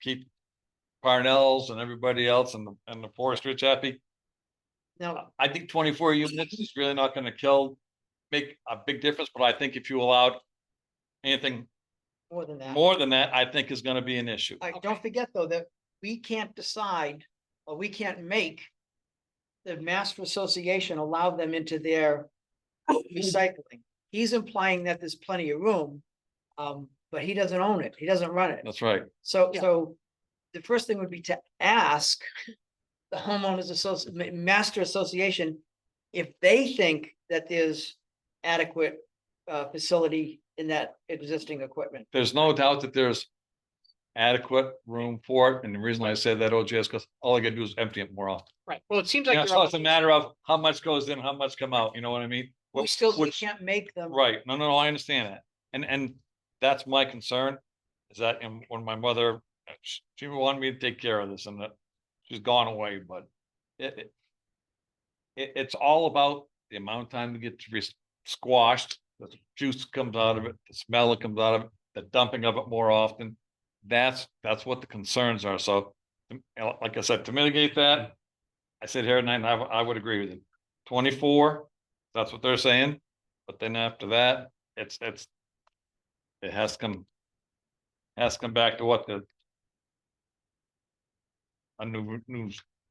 keep Parnells and everybody else and the, and the foresters happy. No, I think twenty-four units is really not gonna kill, make a big difference, but I think if you allowed anything more than that. more than that, I think is gonna be an issue. All right, don't forget though, that we can't decide, or we can't make the master association allow them into their recycling. He's implying that there's plenty of room, um, but he doesn't own it. He doesn't run it. That's right. So, Yeah. so the first thing would be to ask the homeowners association, master association, if they think that there's adequate, uh, facility in that existing equipment. There's no doubt that there's adequate room for it. And the reason I said that OJ is because all I gotta do is empty it more often. Right, well, it seems like. Yeah, you're so it's a almost- matter of how much goes in, how much come out, you know what I mean? We Which- still, we which- can't make them. Right, no, no, I understand that, and, and that's my concern, is that, and when my mother, she- she wanted me to take care of this, and that, she's gone away, but it, it. It, it's all about the amount of time to get to be squashed, the juice comes out of it, the smell that comes out of it, the dumping of it more often. That's, that's what the concerns are, so, to- and like I said, to mitigate that, I sit here tonight and I, I would agree with you. Twenty-four, that's what they're saying. But then after that, it's, it's. It has to come. Has to come back to what the. A new, new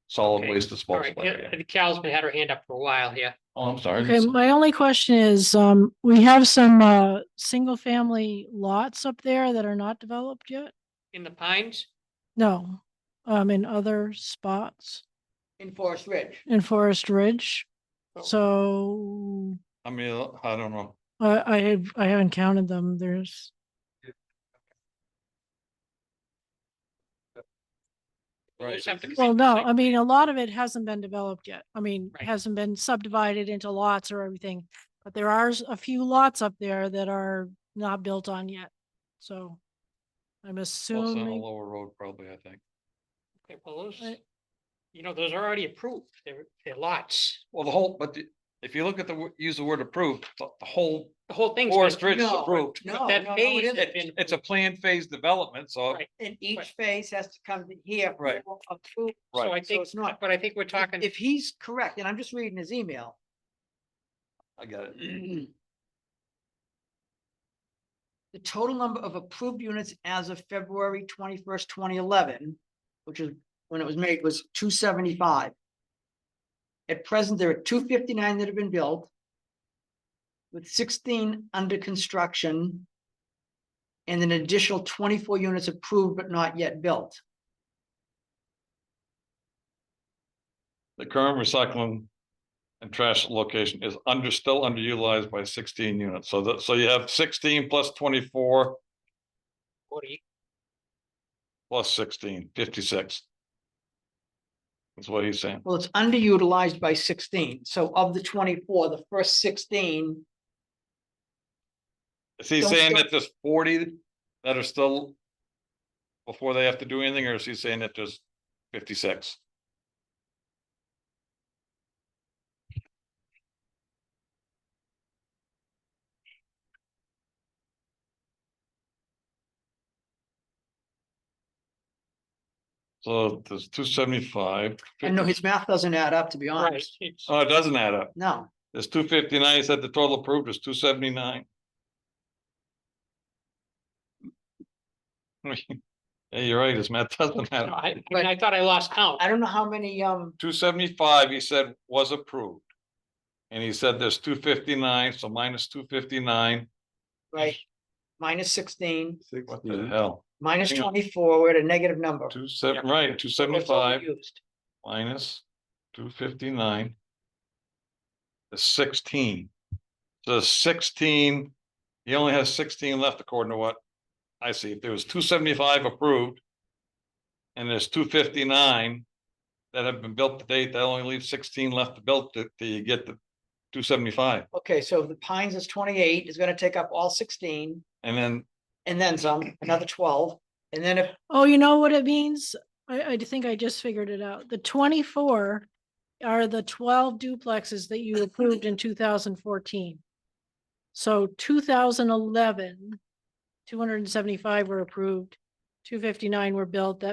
solid Okay, waste All disposal. right, area. yeah, the Cal's been had her hand up for a while here. Oh, I'm sorry. Okay, my only question is, um, we have some, uh, single family lots up there that are not developed yet? In the pines, No, um, in other spots In Forest Ridge. in Forest Ridge. Oh. So I mean, I don't know. I, I, have- I haven't counted them. There's, we just have to. well, no, I like, mean, a lot of it hasn't been developed yet. I mean, Right. hasn't been subdivided into lots or everything. But there are s- a few lots up there that are not built on yet. So I'm Well, it's on the assuming. lower road probably, I think. okay, well, those- Right. You know, those are already approved, they're, they're lots, Well, the whole, but the- if you look at the, wo- use the word approved, the the whole, the whole thing's. been Forest Ridge is No, approved. No, That no, no, it phase has isn't. been It's a planned phase development, so. Right. And each phase has to come to here. Right. for approval. So I Right, think, it's not- but I think we're talking, If he's correct, and I'm just reading his email, I got Mm-hmm. it. the total number of approved units as of February twenty-first, twenty eleven, which is when it was made, was two seventy-five. At present, there are two fifty-nine that have been built with sixteen under construction and an additional twenty-four units approved but not yet built. The current recycling and trash location is under, still underutilized by sixteen units. So that, so you have sixteen plus twenty-four what do you- plus 16, 56. That's what he's saying. Well, it's underutilized by sixteen, so of the twenty-four, the first sixteen, Is he Don't saying go- that there's forty that are still before they have to do anything, or is he saying that there's fifty-six? So there's two seventy-five. I know his math doesn't add up, to be right, Uh, honest, it's- Oh, it doesn't add up. no. There's two fifty-nine, he said the total approved is two seventy-nine. Yeah, you're right, his math doesn't no, matter. I, I mean, I thought I lost count, I don't know how many, um, Two seventy-five, he said, was approved. And he said there's two fifty-nine, so minus two fifty-nine, right, minus sixteen, what the hell? minus Hang on. twenty-four, we're at a negative number. Two seven, right, two seventy-five Used. minus two fifty-nine. Is sixteen. So sixteen, he only has sixteen left according to what I see. If there was two seventy-five approved. And there's two fifty-nine that have been built to date, that only leaves sixteen left to build to, to you get the two seventy-five. Okay, so the Pines is twenty-eight, is gonna take up all sixteen, And then and then some, another twelve, and then if, Oh, you know what it means? I, I think I just figured it out. The twenty-four are the twelve duplexes that you approved in two thousand fourteen. So 2011, 275 were approved, 2012 two fifty-nine were built, that